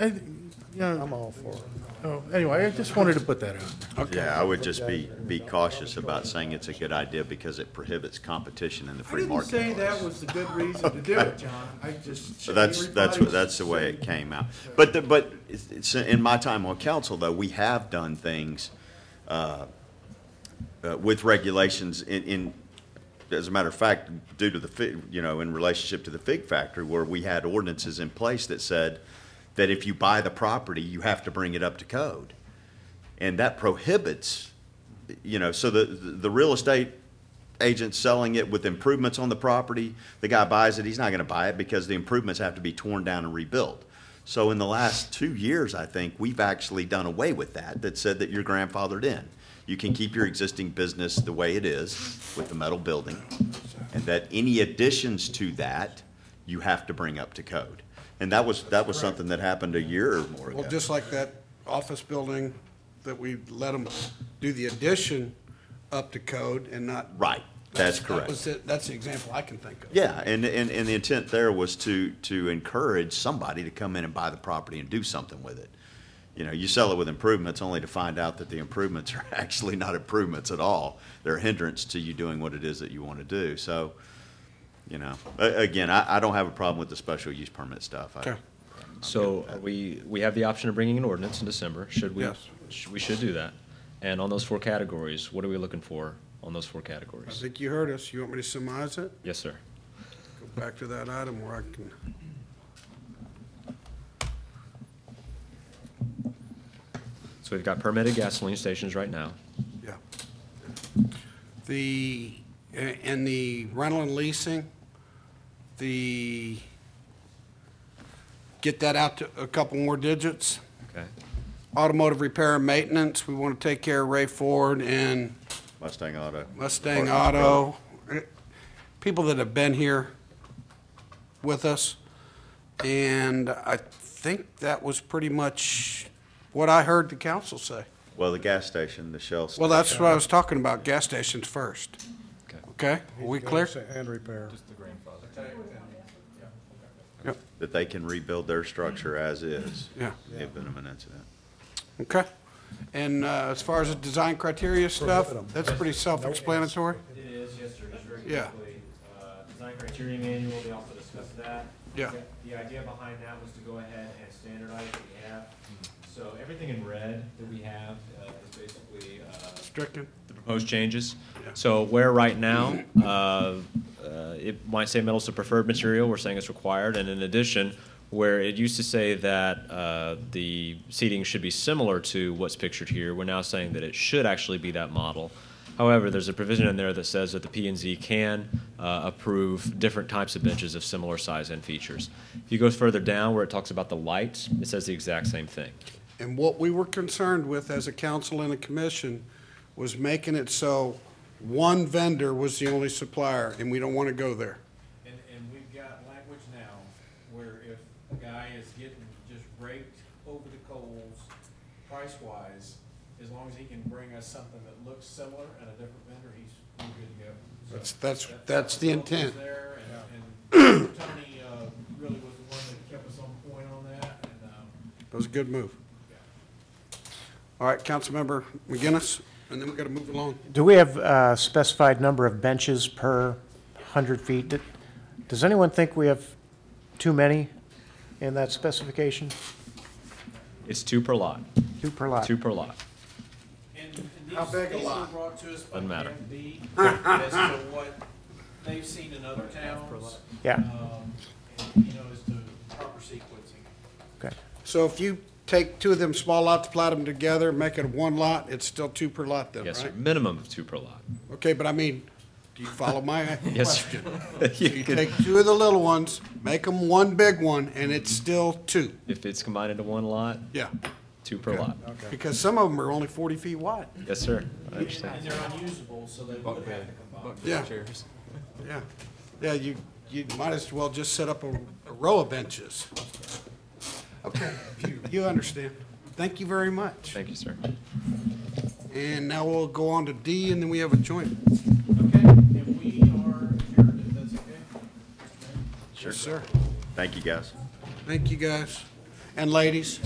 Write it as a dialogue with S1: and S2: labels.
S1: I- I- Yeah,
S2: I'm all for it.
S1: oh, anyway, I just wanted to put that out.
S3: Yeah, I would just be, be cautious about saying it's a good idea because it prohibits competition in the
S4: I
S3: free
S4: didn't say
S3: marketplace.
S4: that was the good reason to do it, John. I just.
S3: So that's, that's, what- that's the way it came out. But, the- but it's- it's, in my time on council, though, we have done things uh, uh, with regulations in, in, as a matter of fact, due to the, fi- you know, in relationship to the fig factory, where we had ordinances in place that said that if you buy the property, you have to bring it up to code. And that prohibits, you know, so the, the real estate agent selling it with improvements on the property, the guy buys it, he's not gonna buy it because the improvements have to be torn down and rebuilt. So in the last two years, I think, we've actually done away with that, that said that you're grandfathered in. You can keep your existing business the way it is with the metal building, and that any additions to that, you have to bring up to code. And that was, that was something that happened a year or more ago.
S5: Well, just like that office building that we let them do the addition up to code and not.
S3: Right, that's correct.
S5: That was it. That's the example I can think of.
S3: Yeah, and, and, and the intent there was to, to encourage somebody to come in and buy the property and do something with it. You know, you sell it with improvements only to find out that the improvements are actually not improvements at all. They're a hindrance to you doing what it is that you want to do. So, you know, a- again, I, I don't have a problem with the special use permit stuff. I-
S5: Okay.
S6: So we, we have the option of bringing an ordinance in December, should we?
S5: Yes.
S6: sh- We should do that. And on those four categories, what are we looking for on those four
S5: I
S6: categories?
S5: think you heard us. You want me to surmise it?
S6: Yes, sir.
S5: Go back to that item where I can.
S6: So we've got permitted gasoline stations right now.
S5: Yeah. The, and the rental and leasing, the, get that out to a couple more digits.
S6: Okay.
S5: Automotive repair and maintenance, we want to take care of Ray Ford and
S3: Mustang Auto.
S5: Mustang
S3: Or-
S5: Auto. Eh, People that have been here with us. And I think that was pretty much what I heard the council say.
S3: Well, the gas station, the Shell
S5: Well,
S3: station.
S5: that's what I was talking about, gas stations first.
S6: Okay.
S5: Okay, are we clear?
S2: And repair.
S5: Yep,
S3: That they can rebuild their structure as is.
S5: Yeah.
S3: If been an incident.
S5: okay. And uh, as far as the design criteria stuff, that's pretty self-explanatory?
S7: It is, yes, sir, it's very
S5: Yeah.
S7: quickly. Uh, Design criteria manual, they also discussed that.
S5: Yeah.
S7: The- The idea behind that was to go ahead and standardize what we have. So everything in red that we have uh, is basically uh,
S5: Stricken?
S6: The proposed changes. So where right now, uh, uh, it might say metals of preferred material, we're saying it's required. And in addition, where it used to say that uh, the seating should be similar to what's pictured here, we're now saying that it should actually be that model. However, there's a provision in there that says that the P and Z can uh, approve different types of benches of similar size and features. If you go further down where it talks about the lights, it says the exact same thing.
S5: And what we were concerned with as a council and a commission was making it so one vendor was the only supplier, and we don't want to go there.
S4: And, and we've got language now where if a guy is getting just raked over the coals price-wise, as long as he can bring us something that looks similar and a different vendor, he's we're good to go. So
S5: That's- that's- that's the
S4: what was
S5: intent.
S4: there, and, and Tony, uh, really was the one that kept us on point on that, and, um,
S5: That was a good move.
S4: yeah.
S5: All right, Councilmember McGinnis, and then we got to move along.
S2: Do we have a specified number of benches per 100 feet? Did- Does anyone think we have too many in that specification?
S6: It's two per lot,
S2: Two per lot?
S6: two per lot.
S4: And and
S5: How big a
S4: these, these were
S5: lot?
S4: brought to us by
S6: Doesn't matter.
S4: DMV as to what they've seen in other towns.
S2: Yeah.
S4: um, and, You know, as to proper sequencing.
S2: Okay.
S5: So if you take two of them small lots, plat them together, make it one lot, it's still two per lot then, right?
S6: Yes, sir. Minimum of two per lot.
S5: Okay, but I mean, do you follow my
S6: Yes,
S5: question?
S6: sir.
S5: So you take two of the little ones, make them one big one, and it's still two,
S6: If it's combined into one lot,
S5: yeah.
S6: two per lot.
S5: Because some of them are only forty feet wide.
S6: Yes, sir. I
S4: And
S6: understand.
S4: they're unusable, so they would have to combine.
S5: Yeah. Yeah, yeah, you, you might as well just set up a, a row of benches. Okay, you, you understand. Thank you very much.
S6: Thank you, sir.
S5: And now we'll go on to D, and then we have a joint.
S4: Okay, and we are adjourned, if that's okay?
S5: Sure. Sir,
S3: Thank you, guys.
S5: thank you, guys. And ladies?